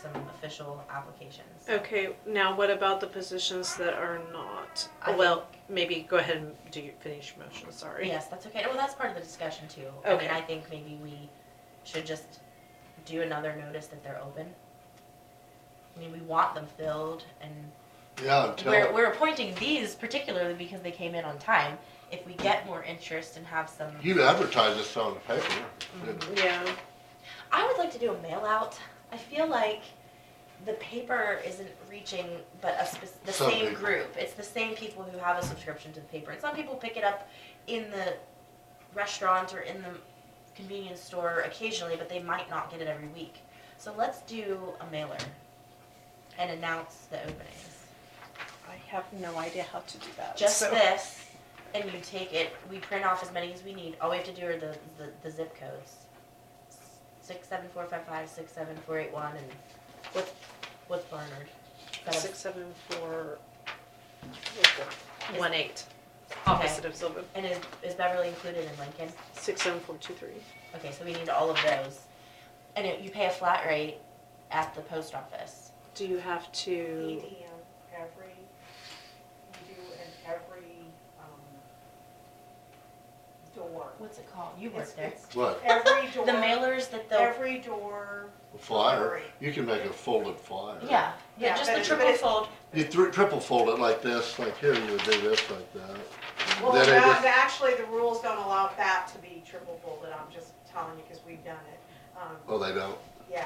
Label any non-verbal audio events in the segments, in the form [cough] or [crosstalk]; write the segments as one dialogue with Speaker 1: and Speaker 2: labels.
Speaker 1: some official applications.
Speaker 2: Okay, now what about the positions that are not?
Speaker 1: I
Speaker 2: Well, maybe go ahead and do your finish your motion, sorry.
Speaker 1: Yes, that's okay. Well, that's part of the discussion too. I
Speaker 2: Okay.
Speaker 1: mean, I think maybe we should just do another notice that they're open. I mean, we want them filled and
Speaker 3: Yeah, until,
Speaker 1: We're, we're appointing these particularly because they came in on time. If we get more interest and have some,
Speaker 3: you advertise this on the paper.
Speaker 2: Yeah,
Speaker 1: I would like to do a mail out. I feel like the paper isn't reaching but a spec- the
Speaker 3: Some
Speaker 1: same
Speaker 3: people.
Speaker 1: group. It's the same people who have a subscription to the paper. And some people pick it up in the restaurant or in the convenience store occasionally, but they might not get it every week. So let's do a mailer and announce the openings.
Speaker 2: I have no idea how to do that.
Speaker 1: just
Speaker 2: so-
Speaker 1: this, and you take it. We print off as many as we need. All we have to do are the, the, the zip codes. Six seven four five five six seven four eight one and what what's Barnard? um, Is that a-
Speaker 2: Six, seven, four,
Speaker 1: Is-
Speaker 2: one, eight. Opposite of Sylvan.
Speaker 1: And is, is Beverly included in Lincoln?
Speaker 2: Six, seven, four, two, three.
Speaker 1: Okay, so we need all of those. And it, you pay a flat rate at the post office.
Speaker 2: Do you have to,
Speaker 4: EDM every, you do in every, um, door.
Speaker 1: What's it called? You work
Speaker 4: It's-
Speaker 1: there.
Speaker 4: it's
Speaker 3: What,
Speaker 4: Every door.
Speaker 1: The mailers that they'll,
Speaker 4: Every door,
Speaker 3: a flyer? You can make a folded flyer.
Speaker 1: yeah, yeah,
Speaker 4: Yeah,
Speaker 1: just
Speaker 4: but
Speaker 1: the
Speaker 4: it-
Speaker 1: triple
Speaker 4: but it-
Speaker 1: fold.
Speaker 3: You thr- triple fold it like this, like here, you would do this like that.
Speaker 4: well,
Speaker 3: Then I
Speaker 4: no,
Speaker 3: just-
Speaker 4: the- actually, the rules don't allow that to be triple folded, I'm just telling you, because we've done it. Um,
Speaker 3: Oh, they don't.
Speaker 4: yeah,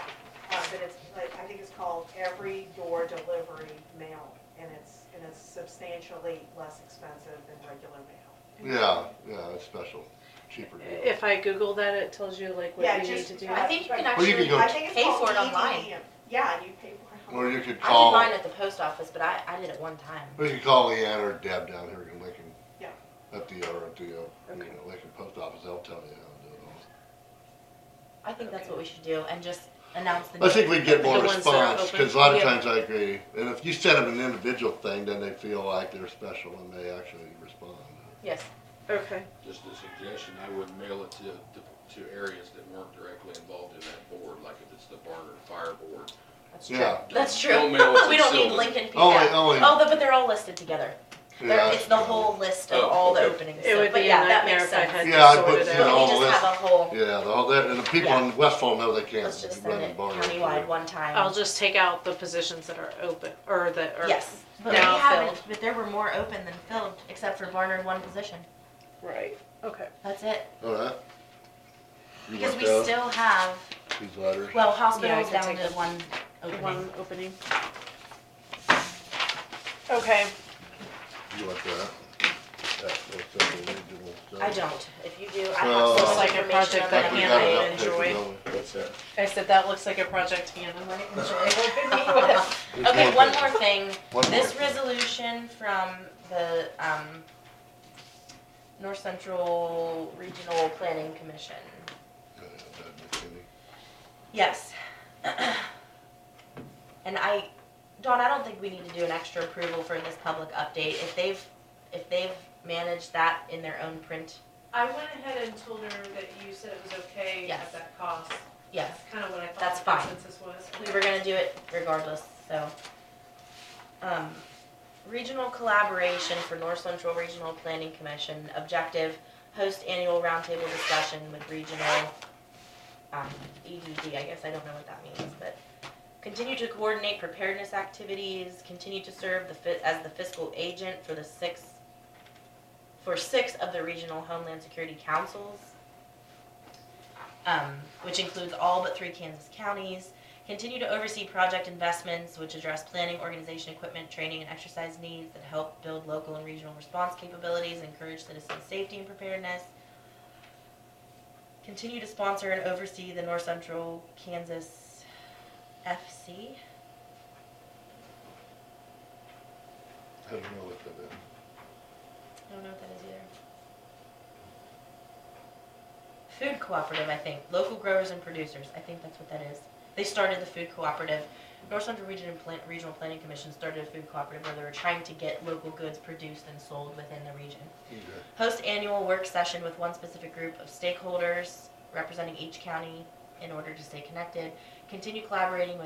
Speaker 4: uh, but it's, like, I think it's called every door delivery mail, and it's, and it's substantially less expensive than regular mail.
Speaker 3: Yeah, yeah, it's special, cheaper deal.
Speaker 2: if I Google that, it tells you like
Speaker 4: Yeah,
Speaker 2: what you need
Speaker 4: just
Speaker 2: to do?
Speaker 4: try-
Speaker 1: I think you can
Speaker 4: Well,
Speaker 3: you
Speaker 1: actually
Speaker 3: can go-
Speaker 4: I think it's
Speaker 1: pay
Speaker 4: called
Speaker 1: for it online.
Speaker 4: EDM. Yeah, you pay for it online.
Speaker 3: Or you could
Speaker 1: I did
Speaker 3: call,
Speaker 1: mine at the post office, but I, I did it one time.
Speaker 3: or you could call Leanne or Deb down here in Lincoln.
Speaker 4: Yeah.
Speaker 3: At the, or at the, uh, you
Speaker 2: Okay.
Speaker 3: know, Lincoln Post Office, they'll tell you how to do it all.
Speaker 1: I think that's what we should do and just announce the.
Speaker 3: I think we get more
Speaker 2: The ones that are
Speaker 3: response,
Speaker 2: open.
Speaker 3: cause a lot of
Speaker 2: Yeah.
Speaker 3: times I agree, and if you send them an individual thing, then they feel like they're special and they actually respond.
Speaker 1: Yes.
Speaker 2: Okay,
Speaker 5: Just a suggestion, I would mail it to, to, to areas that weren't directly involved in that board, like if it's the Barnard Fire Board.
Speaker 1: That's true.
Speaker 3: Yeah.
Speaker 1: That's
Speaker 5: Don't-
Speaker 1: true. [laughs]
Speaker 5: don't mail it to
Speaker 1: We don't need
Speaker 5: Sylvan.
Speaker 1: Lincoln people.
Speaker 3: Oh, wait, oh, wait.
Speaker 1: Oh, but- but they're all listed together.
Speaker 3: Yeah,
Speaker 1: They're, it's the whole list of
Speaker 5: Oh,
Speaker 1: all the
Speaker 5: okay.
Speaker 1: openings.
Speaker 2: it
Speaker 1: so-
Speaker 2: would
Speaker 1: but
Speaker 2: be a
Speaker 1: yeah, that
Speaker 2: nightmare
Speaker 1: makes
Speaker 2: if I
Speaker 1: sense.
Speaker 2: had to
Speaker 3: Yeah, I'd
Speaker 2: sort
Speaker 3: put,
Speaker 2: it
Speaker 3: you
Speaker 2: out.
Speaker 3: know,
Speaker 1: But
Speaker 3: all
Speaker 1: we
Speaker 3: this-
Speaker 1: just have a whole,
Speaker 3: Yeah, the whole, that- and the people in Westfall know they can't.
Speaker 1: let's just
Speaker 3: run
Speaker 1: send it
Speaker 3: bars.
Speaker 1: countywide one
Speaker 2: I'll
Speaker 1: time.
Speaker 2: just take out the positions that are open, or that are.
Speaker 1: Yes. But we
Speaker 2: now
Speaker 1: haven't,
Speaker 2: filled.
Speaker 1: but there were more open than filled, except for Barnard one position.
Speaker 2: Right, okay.
Speaker 1: That's it.
Speaker 3: All right. You
Speaker 1: Because
Speaker 3: want
Speaker 1: we
Speaker 3: those?
Speaker 1: still have,
Speaker 3: These letters.
Speaker 1: well, hospitals
Speaker 2: can
Speaker 1: down
Speaker 2: take
Speaker 1: to
Speaker 2: the-
Speaker 1: one
Speaker 2: One
Speaker 1: opening.
Speaker 2: opening. Okay,
Speaker 3: You want that? That little stuff, the original stuff.
Speaker 1: I don't. If you do, I
Speaker 3: Oh.
Speaker 1: have so
Speaker 3: Looks
Speaker 1: much
Speaker 2: like a
Speaker 1: information
Speaker 2: project
Speaker 1: on
Speaker 2: that
Speaker 1: that
Speaker 3: we
Speaker 2: hand
Speaker 3: got
Speaker 2: I
Speaker 3: enough paper,
Speaker 2: enjoy.
Speaker 3: don't we?
Speaker 5: What's that?
Speaker 2: I said that looks like a project Hannah might enjoy working with.
Speaker 3: There's
Speaker 1: Okay, one
Speaker 3: thing.
Speaker 1: more thing.
Speaker 3: One more
Speaker 1: This
Speaker 3: thing.
Speaker 1: resolution from the, um, North Central Regional Planning Commission.
Speaker 3: Yeah, that McKinney.
Speaker 1: Yes. [clears throat] And I, Dawn, I don't think we need to do an extra approval for this public update. If they've, if they've managed that in their own print,
Speaker 6: I went ahead and told her that you said it was okay
Speaker 1: Yes.
Speaker 6: at that cost.
Speaker 1: yes,
Speaker 6: Kind of what I
Speaker 1: That's
Speaker 6: thought the
Speaker 1: fine.
Speaker 6: consensus was.
Speaker 1: we were gonna do it regardless, so. Um, regional collaboration for North Central Regional Planning Commission, objective, host annual roundtable discussion with regional, um, EDD, I guess I don't know what that means, but. Continue to coordinate preparedness activities, continue to serve the fi- as the fiscal agent for the six, for six of the regional homeland security councils. Um, which includes all but three Kansas counties. Continue to oversee project investments which address planning, organization, equipment, training, and exercise needs that help build local and regional response capabilities, encourage citizen safety and preparedness. Continue to sponsor and oversee the North Central Kansas FC.
Speaker 3: I don't know what that is.
Speaker 1: I don't know what that is either. Food cooperative, I think. Local growers and producers. I think that's what that is. They started the food cooperative. North Central Region and Plan- Regional Planning Commission started a food cooperative where they were trying to get local goods produced and sold within the region.
Speaker 3: Okay.
Speaker 1: Host annual work session with one specific group of stakeholders representing each county in order to stay connected. Continue collaborating with